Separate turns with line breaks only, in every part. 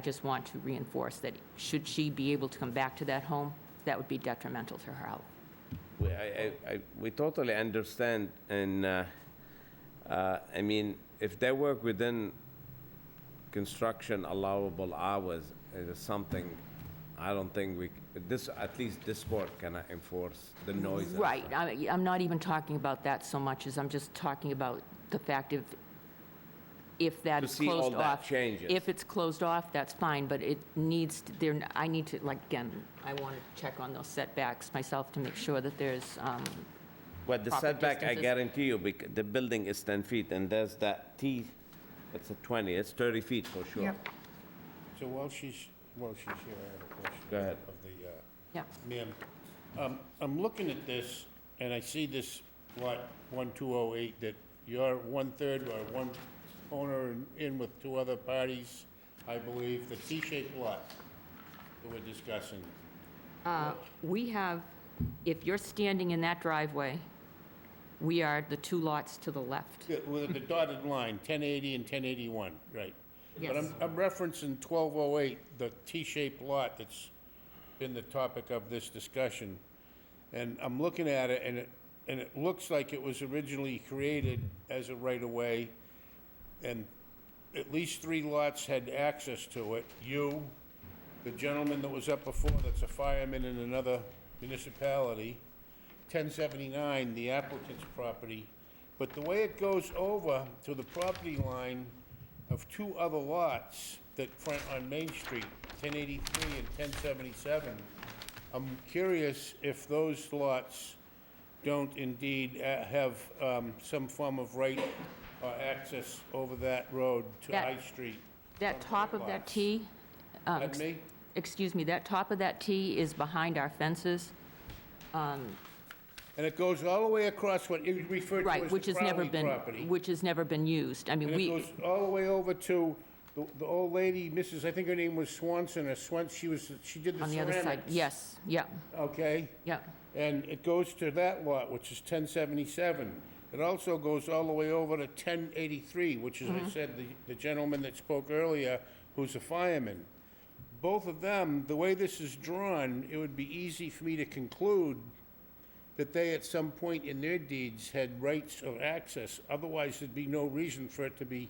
I just want to reinforce that should she be able to come back to that home, that would be detrimental to her health.
We, I, I, I- we totally understand, and, uh, uh, I mean, if they work within construction allowable hours, it is something, I don't think we, c- this, at least this board cannot enforce the noise. and
Right,
stuff.
I- I'm not even talking about that so much as I'm just talking about the fact of if that
To
is
see all
closed off.
that changes.
If it's closed off, that's fine, but it needs, to- there, I need to, like, again, I want to check on those setbacks myself to make sure that there's, um,
But the
proper
setback, I
distances.
guarantee you, bec- the building is 10 feet, and there's that T, it's a 20, it's 30 feet for sure.
Yep.
So while she's, while she's here, I have a question.
Go ahead.
Of the, uh,
yeah,
ma'am, um, I'm looking at this, and I see this lot one two oh eight, that you're one-third or one owner in- in with two other parties, I believe, the T-shaped lot that we're discussing.
We have, if you're standing in that driveway, we are the two lots to the left.
The- With the dotted line, ten eighty and ten eighty-one, right? But I'm,
Yes.
I'm referencing twelve oh eight, the T-shaped lot that's been the topic of this discussion. And I'm looking at it, and it, and it looks like it was originally created as a right-of-way, and at least three lots had access to it. You, the gentleman that was up before, that's a fireman in another municipality, 1079, the applicant's property. But the way it goes over to the property line of two other lots that front on Main Street, 1083 and 1077, I'm curious if those lots don't indeed uh, have um, some form of right or access over that road to
That-
High Street.
That top of that
lots.
T, um,
Pardon me?
excuse me, that top of that T is behind our fences,
And it goes all the way across what you referred to
right,
as
which
the
has never
Crowley
been,
property.
which has never been used. I mean,
And it
we,
goes all the way over to the, the old lady, Mrs., I think her name was Swanson or Swan, she was, she did the
on
ceramics.
the other side, yes, yeah,
Okay?
yeah,
And it goes to that lot, which is ten seventy-seven. It also goes all the way over to ten eighty-three, which is, I
Mm-hmm.
said, the, the gentleman that spoke earlier, who's a fireman. Both of them, the way this is drawn, it would be easy for me to conclude that they at some point in their deeds had rights of access. Otherwise, there'd be no reason for it to be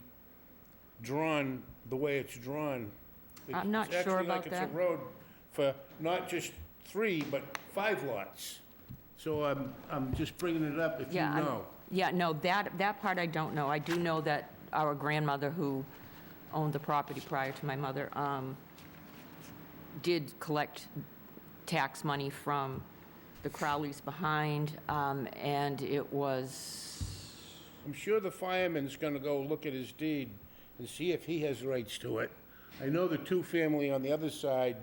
drawn the way it's drawn.
I'm not
It's actually
sure about
like It's
that.
a road for not just three, but five lots. So I'm, I'm just bringing it up if you
yeah. I'm-
know.
Yeah, no, that, that part I don't know. I do know that our grandmother, who owned the property prior to my mother, um, did collect tax money from the Crowleys behind, um, and it was,
I'm sure the fireman's gonna go look at his deed and see if he has rights to it. I know the two-family on the other side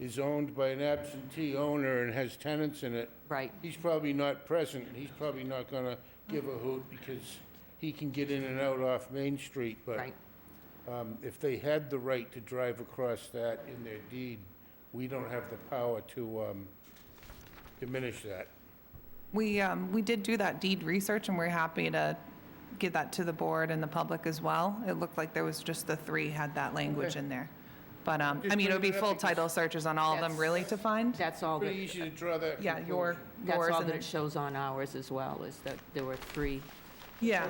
is owned by an absentee owner and has tenants in it.
right,
He's probably not present, and he's probably not gonna give a hoot because he can get in and out off Main Street, but
right.
um, if they had the right to drive across that in their deed, we don't have the power to um, diminish that.
We, um, we did do that deed research, and we're happy to get that to the board and the public as well. It looked like there was just the three had that language in there. But, um, I
Just
mean, it would be
bringing it up
full title
because-
searches on all of them really to find.
That's all that,
Pretty easy to draw that
Yeah, your,
conclusion.
that's
yours
all
and
that it
the,
shows on ours as well, is that there were three.
yeah.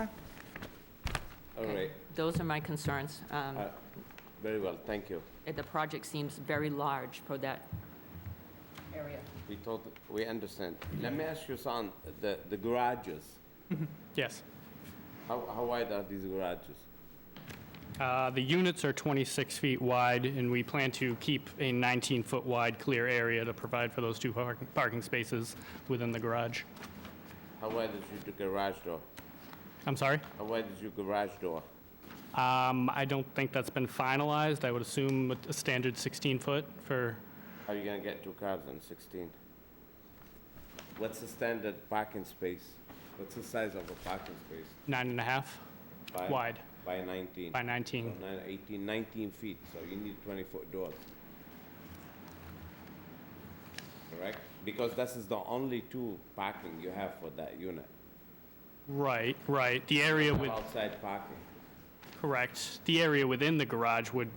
um,
All right,
Those are my concerns. Um,
uh, very well, thank you.
Uh, The project seems very large for that area.
We tot we understand. Let me ask you, son, the, the garages,
Yes.
how, how wide are these garages?
Uh, The units are 26 feet wide, and we plan to keep a 19-foot wide clear area to provide for those two park- parking spaces within the garage.
How wide is your garage door?
I'm sorry?
How wide is your garage door?
Um, I don't think that's been finalized. I would assume a- a standard 16-foot for,
How are you gonna get two cars on 16? What's the standard parking space? What's the size of a parking space?
nine and a half
By-
Wide.
By 19.
by 19.
Nine- 18, 19 feet, so you need 20-foot doors. Correct? Because this is the only two parking you have for that unit.
Right, right. The area with,
Outside parking.
correct. The area within the garage would